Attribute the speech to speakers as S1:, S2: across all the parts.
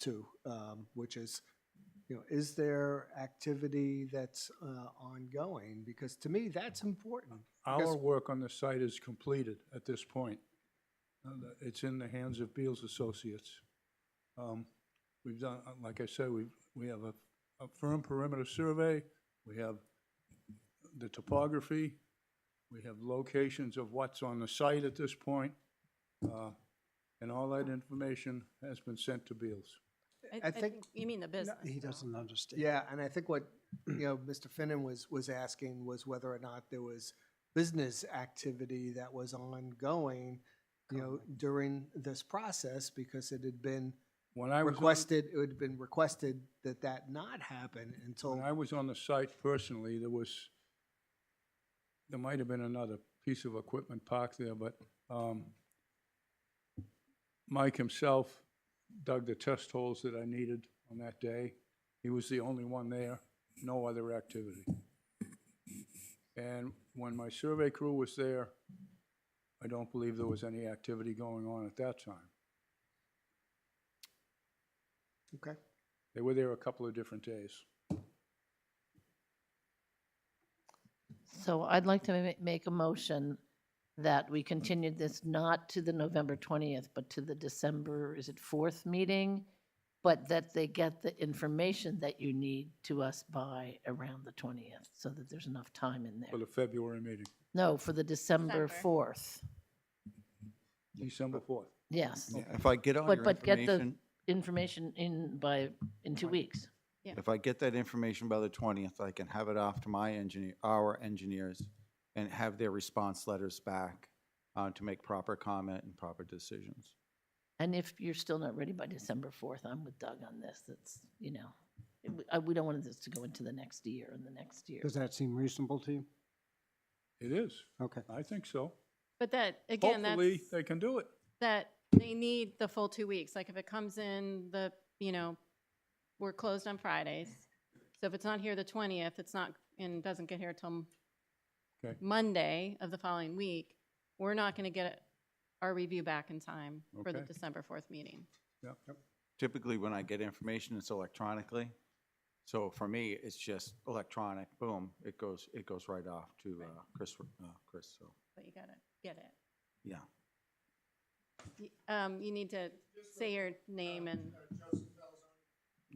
S1: to, um, which is, you know, is there activity that's uh, ongoing? Because to me, that's important.
S2: Our
S1: Yes.
S2: work on the site is completed at this point. Uh, the- It's in the hands of Beals Associates. Um, We've done, uh, like I said, we, we have a, a firm perimeter survey, we have the topography, we have locations of what's on the site at this point, uh, and all that information has been sent to Beals.
S1: I think-
S3: You mean the business.
S4: He
S3: though.
S4: doesn't understand.
S1: Yeah, and I think what, you know, Mr. Finnan was, was asking was whether or not there was business activity that was ongoing, you know, during this process, because it had been
S2: When I was, on-
S1: requested, it had been requested that that not happen until,
S2: when I was on the site personally, there was, there might have been another piece of equipment parked there, but um, Mike himself dug the test holes that I needed on that day. He was the only one there, no other activity. And when my survey crew was there, I don't believe there was any activity going on at that time.
S1: okay?
S2: They were there a couple of different days.
S5: So I'd like to ma- make a motion that we continued this not to the November 20th, but to the December, is it 4th meeting? But that they get the information that you need to us by around the 20th, so that there's enough time in
S2: For
S5: there.
S2: the February meeting,
S5: No, for the December
S3: December.
S5: 4th,
S2: December 4th.
S5: yes.
S6: Yeah, If I get all
S5: But-
S6: your
S5: but get the-
S6: information,
S5: Information in by, in two weeks.
S6: if I get that information by the 20th, I can have it off to my engineer, our engineers, and have their response letters back uh, to make proper comment and proper decisions.
S5: And if you're still not ready by December 4th, I'm with Doug on this, that's, you know, it- we- I- we don't want this to go into the next year and the next year.
S4: Does that seem reasonable to you?
S2: It is,
S4: Okay.
S2: I think so.
S3: But that, again,
S2: Hopefully,
S3: that's,
S2: they can do it.
S3: that they need the full two weeks. Like if it comes in the, you know, we're closed on Fridays. So if it's not here the twentieth, it's not, and doesn't get here till
S2: Okay.
S3: Monday of the following week, we're not gonna get our review back in time for the
S2: Okay.
S3: December fourth meeting.
S2: Yeah.
S6: Typically, when I get information, it's electronically. So for me, it's just electronic, boom, it goes, it goes right off to uh, Chris, uh, Chris, so,
S3: But you gotta get it.
S6: yeah.
S3: Y- Um, you need to say your name and,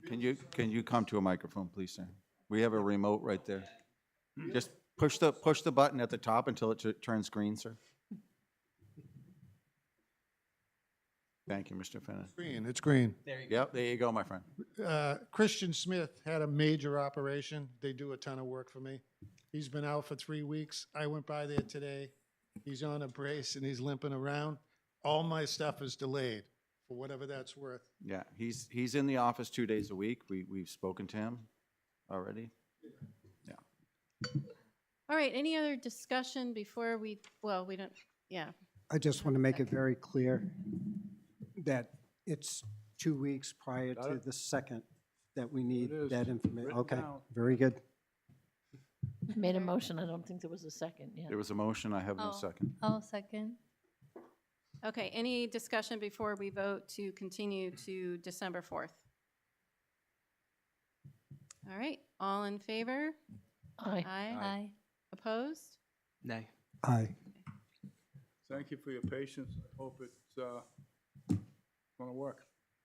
S6: Can you, can you come to a microphone, please, sir? We have a remote right there. Just push the, push the button at the top until it tu- turns green, sir. Thank you, Mr. Finnan.
S7: Green, it's green.
S6: Yep, there you go, my friend.
S7: Uh, Christian Smith had a major operation. They do a ton of work for me. He's been out for three weeks. I went by there today. He's on a brace and he's limping around. All my stuff is delayed for whatever that's worth.
S6: Yeah, he's, he's in the office two days a week. We, we've spoken to him already.
S3: all right, any other discussion before we, well, we don't, yeah.
S4: I just want to make it very clear that it's two weeks prior
S2: Got
S4: to
S2: it.
S4: the second that we need
S2: is
S4: that information.
S2: written
S4: Okay,
S2: down.
S4: very good.
S5: Made a motion, I don't think there was a second, yeah.
S6: There was a motion, I have no
S8: Oh.
S6: second.
S8: I'll second.
S3: Okay, any discussion before we vote to continue to December 4th? All right, all in favor?
S5: Aye.
S3: Aye.
S8: Aye.
S3: Opposed?
S9: Nay.
S4: Aye.
S2: Thank you for your patience. I hope it's uh, gonna work.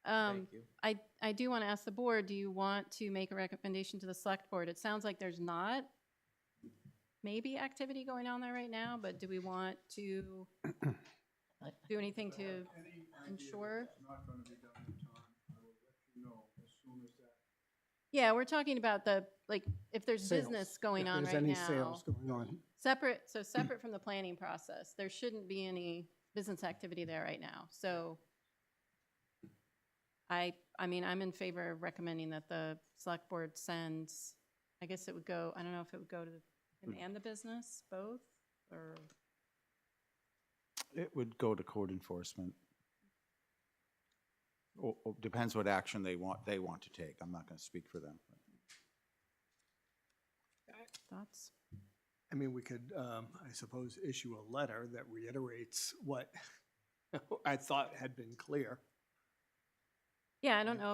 S3: Um,
S9: Thank you.
S3: I, I do want to ask the board, do you want to make a recommendation to the select board? It sounds like there's not maybe activity going on there right now, but do we want to do anything to ensure?
S2: Not gonna be done in time. I will let you know as soon as that.
S3: Yeah, we're talking about the, like, if there's
S4: Sales.
S3: business going
S4: If
S3: on right now.
S4: There's any sales going on.
S3: Separate, so separate from the planning process, there shouldn't be any business activity there right now, so I, I mean, I'm in favor of recommending that the select board sends, I guess it would go, I don't know if it would go to him and the business, both, or,
S6: It would go to code enforcement. Or, or Oh, depends what action they want, they want to take. I'm not gonna speak for them.
S3: thoughts?
S1: I mean, we could, um, I suppose, issue a letter that reiterates what I thought had been clear.
S3: Yeah, I don't know if